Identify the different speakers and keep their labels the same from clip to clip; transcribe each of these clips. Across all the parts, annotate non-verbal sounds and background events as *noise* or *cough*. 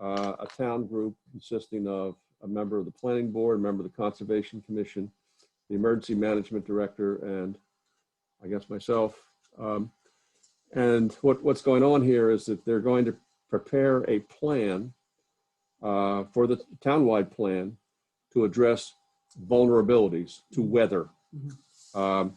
Speaker 1: uh, a town group consisting of a member of the planning board, a member of the conservation commission, the emergency management director, and I guess myself. Um, And what, what's going on here is that they're going to prepare a plan uh, for the townwide plan to address vulnerabilities to weather um,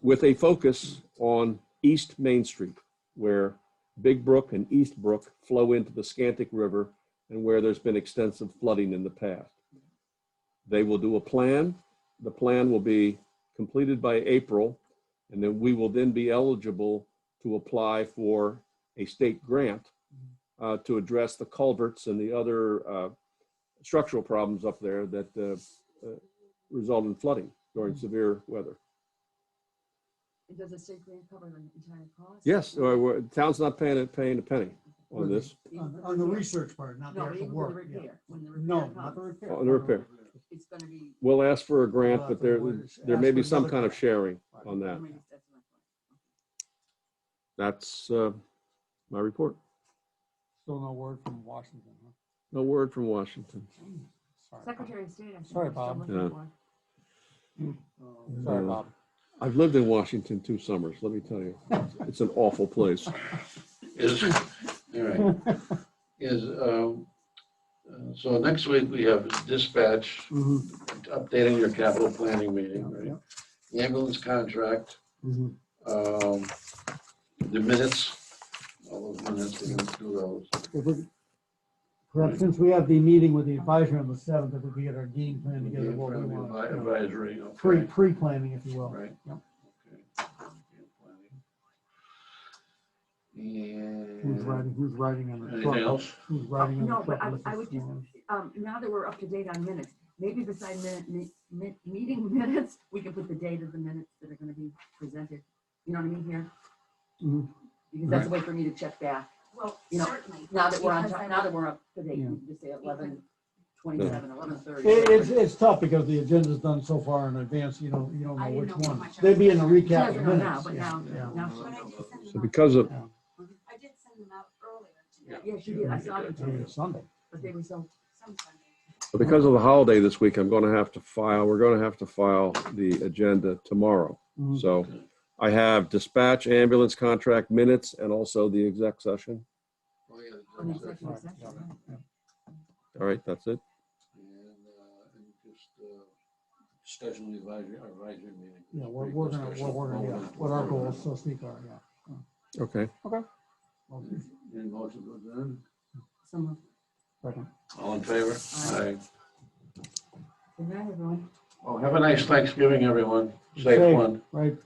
Speaker 1: with a focus on East Main Street, where Big Brook and East Brook flow into the Scantic River and where there's been extensive flooding in the past. They will do a plan. The plan will be completed by April, and then we will then be eligible to apply for a state grant uh, to address the culverts and the other uh, structural problems up there that uh, uh, result in flooding during severe weather.
Speaker 2: And does the state grant cover the entire cost?
Speaker 1: Yes, uh, we're- town's not paying, a- paying a penny on this,
Speaker 2: Even
Speaker 3: On
Speaker 2: for
Speaker 3: on the
Speaker 2: repair?
Speaker 3: research part, not the
Speaker 2: No,
Speaker 3: actual
Speaker 2: even for
Speaker 3: work. yeah.
Speaker 2: repair, when the
Speaker 3: No,
Speaker 2: repair
Speaker 3: not the
Speaker 2: comes,
Speaker 3: repair.
Speaker 1: On the repair.
Speaker 2: it's gonna be.
Speaker 1: we'll ask for a grant,
Speaker 3: Uh,
Speaker 1: but
Speaker 3: the
Speaker 1: there,
Speaker 3: board is
Speaker 1: there may
Speaker 3: asked
Speaker 1: be
Speaker 3: for
Speaker 1: some
Speaker 3: another
Speaker 1: kind of
Speaker 3: grant.
Speaker 1: sharing on
Speaker 2: I
Speaker 1: that.
Speaker 2: mean, that's my point.
Speaker 1: That's uh, my report.
Speaker 3: Still no word from Washington, huh?
Speaker 1: No word from Washington.
Speaker 3: Sorry.
Speaker 2: Secretary of State, I think.
Speaker 3: Sorry,
Speaker 2: is still
Speaker 3: Bob.
Speaker 2: looking
Speaker 1: Yeah.
Speaker 2: for.
Speaker 3: Oh, Sorry,
Speaker 1: Yeah.
Speaker 3: Bob.
Speaker 1: I've lived in Washington two summers, let me tell you. It's an awful place.
Speaker 4: Is, *laughs* all right, is, um, uh, so next week we have dispatch,
Speaker 3: Mhm,
Speaker 4: updating your capital planning meeting,
Speaker 3: yeah,
Speaker 4: right? The Ambulance contract,
Speaker 3: mhm.
Speaker 4: um, the minutes, all those minutes, we're gonna do those.
Speaker 3: If we- Perhaps since we have the meeting with the advisor on the seventh, if we could get our game plan together, what we want. you know,
Speaker 4: Advisory, okay.
Speaker 3: Pre, pre-planning, if you will.
Speaker 4: Right.
Speaker 3: Yep.
Speaker 4: Okay.
Speaker 3: Who's
Speaker 4: And,
Speaker 3: riding, who's riding on the
Speaker 4: anything
Speaker 3: truck?
Speaker 4: else?
Speaker 3: Who's riding on the
Speaker 2: No,
Speaker 3: truck?
Speaker 2: but I,
Speaker 3: with
Speaker 2: I
Speaker 3: the
Speaker 2: would just,
Speaker 3: storm?
Speaker 2: um, now that we're up to date on minutes, maybe beside minute, mi- mi- meeting *laughs* minutes, we can put the date of the minutes that are gonna be presented. You know what I mean here?
Speaker 3: Mhm.
Speaker 2: Because that's a way for me to check back.
Speaker 5: Well,
Speaker 2: You know,
Speaker 5: certainly.
Speaker 2: Now that we're on,
Speaker 5: because
Speaker 2: top-
Speaker 5: I
Speaker 2: now that we're up to date,
Speaker 3: Yeah.
Speaker 2: you just say eleven twenty-seven, eleven thirty.
Speaker 3: It, it's, it's tough because the agenda's done so far in advance, you don't, you don't
Speaker 5: I
Speaker 3: know
Speaker 5: didn't
Speaker 3: which
Speaker 5: know how
Speaker 3: one.
Speaker 5: much I
Speaker 3: They'd be in the
Speaker 5: was-
Speaker 3: recap
Speaker 2: Yeah,
Speaker 3: of
Speaker 2: no, now,
Speaker 3: minutes.
Speaker 2: but
Speaker 3: yeah,
Speaker 2: now-
Speaker 3: yeah.
Speaker 2: now-
Speaker 5: But I did send
Speaker 1: So
Speaker 5: them out.
Speaker 1: because of,
Speaker 5: I did send them out earlier today,
Speaker 2: Yeah, she did, I saw them
Speaker 3: It's gonna be
Speaker 2: too,
Speaker 3: a Sunday.
Speaker 2: but they were so
Speaker 5: some Sunday.
Speaker 1: because of the holiday this week, I'm going to have to file, we're going to have to file the agenda tomorrow.
Speaker 3: Mhm.
Speaker 1: So I have dispatch, ambulance contract minutes, and also the exec session.
Speaker 4: Oh, yeah, the
Speaker 2: on the
Speaker 4: executive
Speaker 2: executive
Speaker 3: Right, yeah,
Speaker 2: session, right?
Speaker 3: yeah.
Speaker 1: All right, that's it.
Speaker 4: And, uh, and just, uh, schedule the advisory, advisory meeting.
Speaker 3: Yeah, we're, we're gonna, we're, we're gonna, yeah, what our goals, so speak, are, yeah.
Speaker 1: Okay.
Speaker 3: Well,
Speaker 4: Any motion to adjourn?
Speaker 2: Some,
Speaker 3: Second.
Speaker 4: All in favor?
Speaker 2: Aye. good night, everyone.
Speaker 4: Well, have a nice Thanksgiving, everyone.
Speaker 3: Safe.
Speaker 4: Safe one.
Speaker 3: Right,